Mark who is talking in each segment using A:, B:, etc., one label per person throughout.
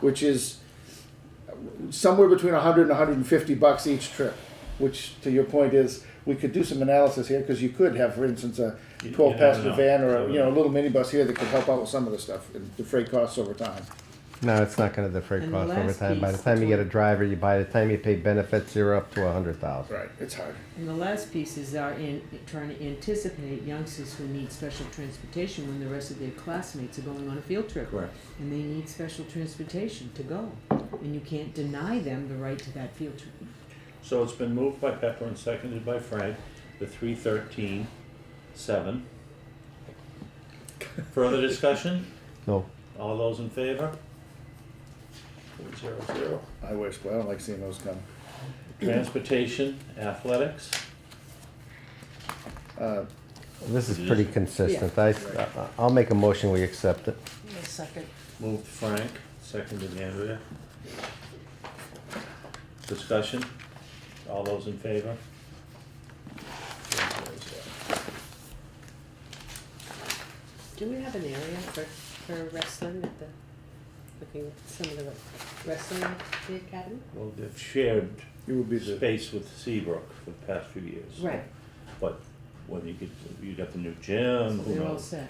A: which is somewhere between 100 and 150 bucks each trip, which to your point is we could do some analysis here because you could have, for instance, a
B: You- you
A: 12 passenger
B: never know.
A: van or a, you know a little minibus here that could help out with some of the stuff and the freight costs over time.
C: No, it's not gonna defer
D: And the
C: costs over
D: last
C: time. By the
D: piece,
C: time you
D: the
C: get a driver, you, by the time you pay benefits, you're up to a hundred thousand.
A: Right, it's hard.
D: And the last pieces are in, trying to anticipate youngsters who need special transportation when the rest of their classmates are going on a field trip.
A: Correct.
D: And they need special transportation to go, and you can't deny them the right to that field trip.
B: So it's been moved by Pepper and seconded by Frank, the three thirteen, seven. Further discussion?
C: No,
B: All those in favor? Four zero zero.
A: I wish, but I don't like seeing those come.
B: Transportation, athletics,
A: Uh,
C: this is pretty consistent. I, I- I'll make a motion, we accept it.
D: second.
B: moved Frank, seconded Andrea. Discussion? All those in favor? Four zero zero.
E: Do we have an area for, for wrestling at the, looking at some of the wrestling at the academy?
B: Well, they've shared
A: it would be the
B: space with Seabrook for the past few years.
D: Right,
B: But whether you could, you got the new gym, who
D: they're all
B: knows?
D: set.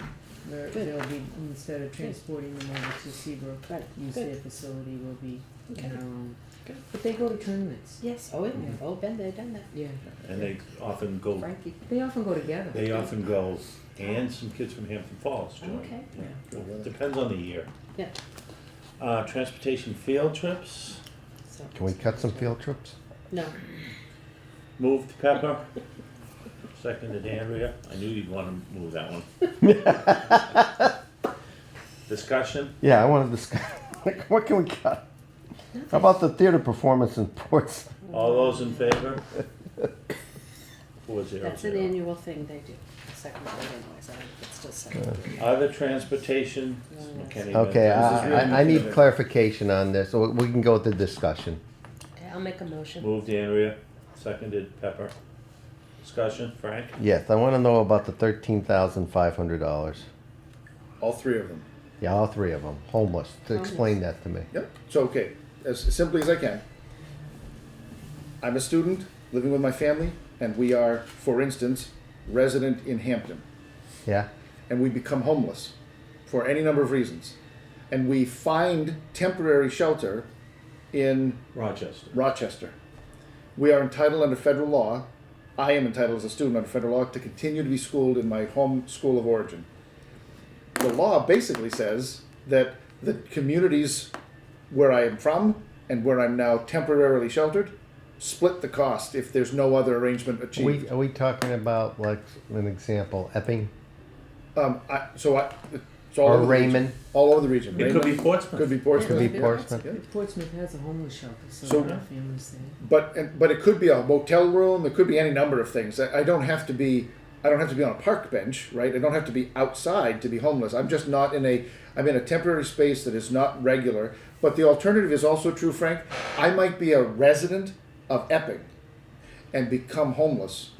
D: They're,
E: Good.
D: they'll be, instead of transporting them over to Seabrook,
E: Right,
D: use
E: good.
D: their facility, will be in
E: Okay.
D: our own.
E: Good.
D: But they go to tournaments.
E: Yes, oh, yeah, oh, been there, done that.
D: Yeah,
B: And they often go,
E: Frankie,
D: they often go together.
B: they often go, and some kids from Hampton Falls join.
E: Okay.
B: Yeah. Depends on the year.
E: Yeah.
B: Uh, transportation field trips,
E: so.
C: Can we cut some field trips?
E: No,
B: moved Pepper, seconded Andrea, I knew you'd wanna move that one. Discussion,
C: Yeah, I wanna discuss, like, what can we cut? How about the theater performance in Ports?
B: all those in favor? Four zero
E: that's an
B: zero.
E: annual thing they do, second grade anyways, I think it's still second grade.
B: Other transportation, McKinney.
C: Okay,
A: This is
C: I,
A: written
C: I, I need
A: together.
C: clarification on this, so we can go with the discussion.
E: Okay, I'll make a motion.
B: Moved Andrea, seconded Pepper. Discussion, Frank?
C: Yes, I wanna know about the thirteen thousand five hundred dollars.
A: all three of them.
C: Yeah, all three of them, homeless. To Explain that to me.
A: Yep. So okay, as simply as I can. I'm a student living with my family, and we are, for instance, resident in Hampton.
C: Yeah?
A: and we become homeless for any number of reasons. And we find temporary shelter in
B: Rochester.
A: Rochester. We are entitled under federal law, I am entitled as a student under federal law, to continue to be schooled in my home school of origin. The law basically says that the communities where I am from and where I'm now temporarily sheltered split the cost if there's no other arrangement
C: Are
A: achieved.
C: we, are we talking about, like, an example, Epping?
A: Um, I, so I, it's all
C: Or
A: over the region.
C: Raymond.
A: All over the region.
B: It could be
A: Raymond, could
B: Portsmouth.
A: be Portsmouth.
C: Could be Portsmouth?
D: Portsmouth has a homeless shelter, so
A: So-
D: there are families there.
A: But and- but it could be a motel room. It could be any number of things. I, I don't have to be. I don't have to be on a park bench, right? I don't have to be outside to be homeless. I'm just not in a. I'm in a temporary space that is not regular. But the alternative is also true, Frank. I might be a resident of Epping, and become homeless,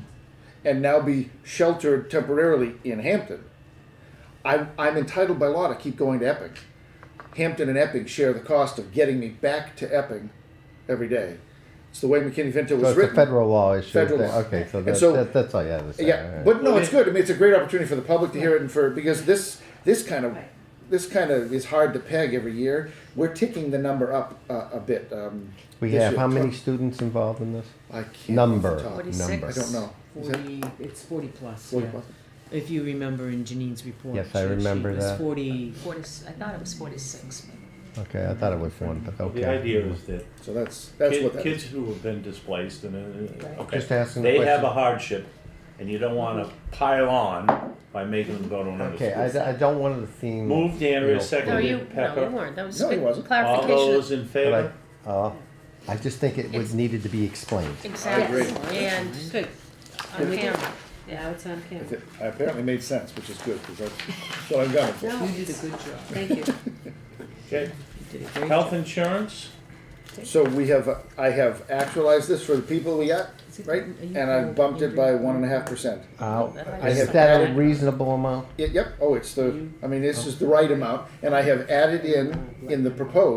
A: and now be sheltered temporarily in Hampton. I'm I'm entitled by law to keep going to Epping. Hampton and Epping share the cost of getting me back to Epping every day. It's the way McKinney-Vento
C: So
A: was
C: it's a
A: written.
C: federal law issue.
A: Federal
C: that-
A: law.
C: Okay, so
A: And
C: that,
A: so-
C: that, that's all you have to say. all
A: Yeah,
C: right.
A: but no,
B: Well,
A: it's
B: it-
A: good. I mean, it's a great opportunity for the public to hear it and for, because this, this kind of,
E: Right.
A: this kind of is hard to peg every year. We're ticking the number up uh, a bit. um,
C: We
A: this
C: have,
A: year.
C: how many students involved in this?
A: I can't. off the
C: Number,
A: top.
E: Forty six.
C: number.
A: I don't know. Is that-
D: Forty, it's forty plus,
A: Forty
D: yeah.
A: plus?
D: If you remember in Janine's report.
C: Yes, I
D: she- she
C: remember
D: was
C: that.
D: Forty,
E: Forty, I thought it was forty-six, but
C: Okay, I thought it was one, but okay.
B: The idea is that
A: So that's, that's what
B: kid-
A: that is.
B: kids who have been displaced and, uh,
E: Right.
B: okay,
C: Just asking a
B: they have
C: question.
B: a hardship and you don't wanna pile on by making them go to another
C: Okay,
B: school.
C: I, I don't want the theme.
B: Moved Andrea,
E: No, you,
B: seconded
E: no, you
B: Pepper.
E: weren't, that was
A: No, he
E: good
A: wasn't.
B: All
E: clarification.
B: those in
C: but I-
B: favor?
C: uh, I just think it was
E: It's-
C: needed to be explained.
E: Exactly,
A: agree.
E: and
D: good,
E: on camera,
D: now it's on camera.
A: If It I apparently made sense, which is good, because that's what I've got it for.
E: no,
D: You did a good job.
E: thank you.
B: Okay,
D: You did a great
B: health
D: job.
B: insurance,
A: So we have, I have actualized this for the people we got,
D: Is it-
A: right?
D: are you
A: And I've bumped it by one and a half percent.
C: Uh,
E: that
C: is
A: is-
C: that a reasonable amount?
A: Yep, oh, it's the, I mean, this is the right amount, and I have added in, in the proposed.